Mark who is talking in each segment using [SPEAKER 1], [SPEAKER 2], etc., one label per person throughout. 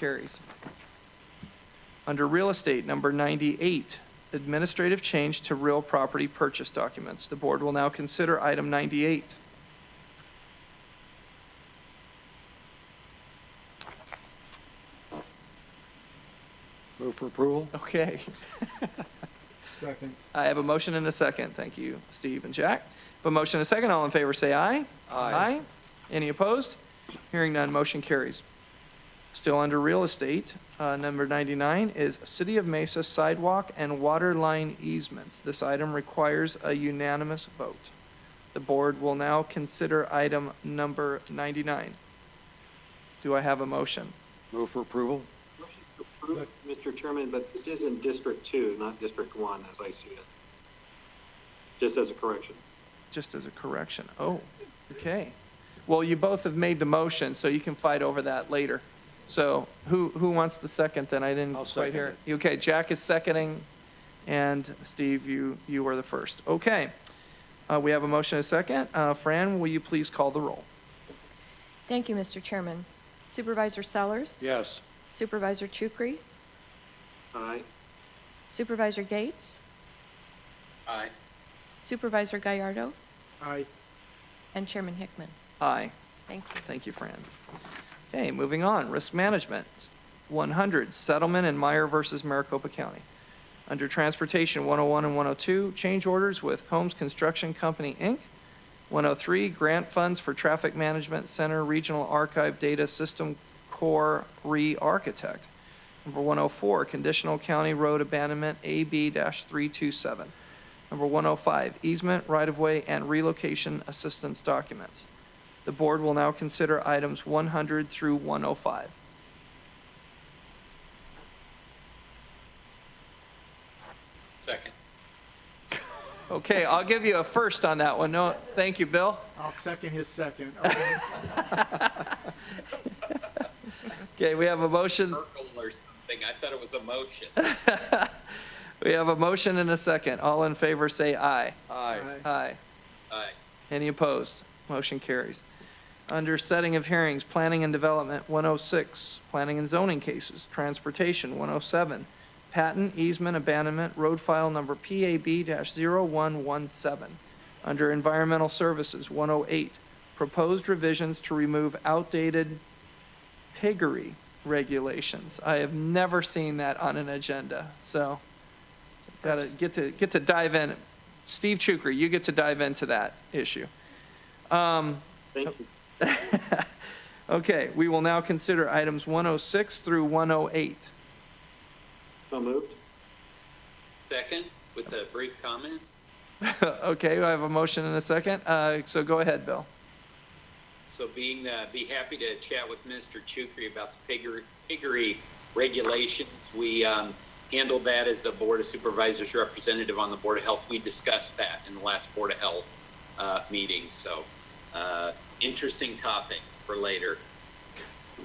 [SPEAKER 1] Carries. Under real estate, number 98, administrative change to real property purchase documents. The board will now consider item 98.
[SPEAKER 2] Move for approval?
[SPEAKER 1] Okay.
[SPEAKER 2] Second.
[SPEAKER 1] I have a motion and a second. Thank you, Steve and Jack. Have a motion and a second. All in favor, say aye. Aye. Any opposed? Hearing none, motion carries. Still under real estate, uh, number 99 is City of Mesa sidewalk and water line easements. This item requires a unanimous vote. The board will now consider item number 99. Do I have a motion?
[SPEAKER 2] Move for approval?
[SPEAKER 3] Approved, Mr. Chairman, but this is in District Two, not District One, as I see it. Just as a correction.
[SPEAKER 1] just as a correction. Oh, okay. Well, you both have made the motion, so you can fight over that later. So who, who wants the second then? I didn't
[SPEAKER 2] I'll
[SPEAKER 1] quite hear.
[SPEAKER 2] second
[SPEAKER 1] it. Okay, Jack is seconding, and Steve, you, you were the first. Okay. Uh, we have a motion and a second. Uh, Fran, will you please call the roll?
[SPEAKER 4] Thank you, Mr. Chairman. Supervisor Sellers?
[SPEAKER 2] Yes.
[SPEAKER 4] Supervisor Chukri?
[SPEAKER 3] Aye.
[SPEAKER 4] Supervisor Gates?
[SPEAKER 3] Aye.
[SPEAKER 4] Supervisor Gallardo?
[SPEAKER 3] Aye.
[SPEAKER 4] And Chairman Hickman?
[SPEAKER 1] Aye.
[SPEAKER 4] Thank you.
[SPEAKER 1] Thank you, Fran. Okay, moving on, risk management. 100, settlement in Meyer versus Maricopa County. Under Transportation, 101 and 102, change orders with Combs Construction Company, Inc. 103, grant funds for Traffic Management Center Regional Archive Data System Core Re-Architect. Number 104, conditional county road abandonment AB-327. Number 105, easement, right-of-way, and relocation assistance documents. The board will now consider items 100 through 105.
[SPEAKER 3] Second.
[SPEAKER 1] Okay, I'll give you a first on that one. No, thank you, Bill.
[SPEAKER 5] I'll second his second. Okay.
[SPEAKER 1] Okay, we have a motion,
[SPEAKER 6] Urkel or something. I thought it was a motion.
[SPEAKER 1] we have a motion and a second. All in favor, say aye.
[SPEAKER 2] Aye.
[SPEAKER 1] Aye.
[SPEAKER 6] Aye.
[SPEAKER 1] Any opposed? Motion carries. Under setting of hearings, planning and development, 106, planning and zoning cases, transportation, 107, patent easement abandonment, road file number PAB-0117. Under environmental services, 108, proposed revisions to remove outdated piggery regulations. I have never seen that on an agenda, so gotta get to, get to dive in. Steve Chukri, you get to dive into that issue.
[SPEAKER 3] Thank you.
[SPEAKER 1] Okay, we will now consider items 106 through 108.
[SPEAKER 3] So moved.
[SPEAKER 6] Second, with a brief comment.
[SPEAKER 1] Okay, I have a motion and a second, Uh, so go ahead, Bill.
[SPEAKER 6] So being, uh, be happy to chat with Mr. Chukri about the piggery, piggery regulations. We, um, handled that as the Board of Supervisors representative on the Board of Health. We discussed that in the last Board of Health, uh, meeting. So, uh, interesting topic for later.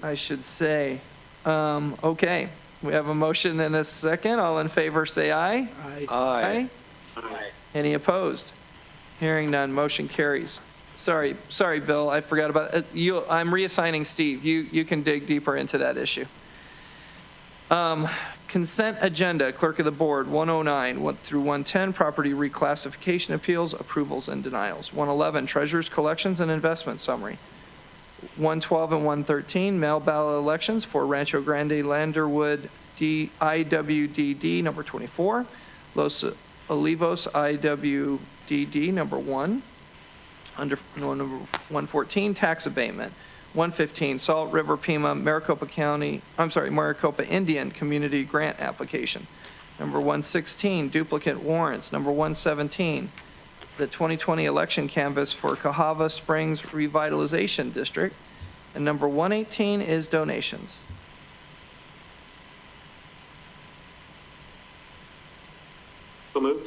[SPEAKER 1] I should say. Um, Okay, we have a motion and a second. All in favor, say aye.
[SPEAKER 5] Aye.
[SPEAKER 2] Aye.
[SPEAKER 6] Aye.
[SPEAKER 1] Any opposed? Hearing none, motion carries. Sorry, sorry, Bill, I forgot about, uh, you, I'm reassigning Steve. You, you can dig deeper into that issue. Um, Consent agenda, clerk of the board, 109 one through 110, property reclassification appeals, approvals and denials. 111, treasurer's collections and investment summary. 112 and 113, mail ballot elections for Rancho Grande Landerwood D- IWDD number 24, Los Olivos IWDD number 1, under, no, number 114, tax abatement, 115, Salt River Pima Maricopa County, I'm sorry, Maricopa Indian Community Grant Application, number 116, duplicate warrants, number 117, the 2020 election canvas for Cahava Springs Revitalization District. And number 118 is donations.
[SPEAKER 3] So moved.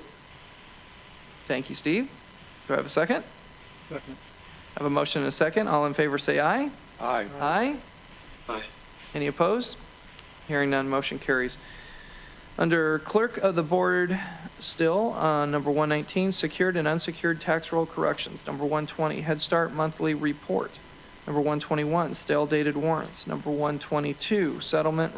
[SPEAKER 1] Thank you, Steve. Do I have a second?
[SPEAKER 5] Second.
[SPEAKER 1] I have a motion and a second. All in favor, say aye.
[SPEAKER 2] Aye.
[SPEAKER 1] Aye.
[SPEAKER 3] Aye.
[SPEAKER 1] Any opposed? Hearing none, motion carries. Under Clerk of the Board, still, uh, number 119, secured and unsecured tax roll corrections. Number 120, Head Start Monthly Report. Number 121, stale dated warrants. Number 122, settlement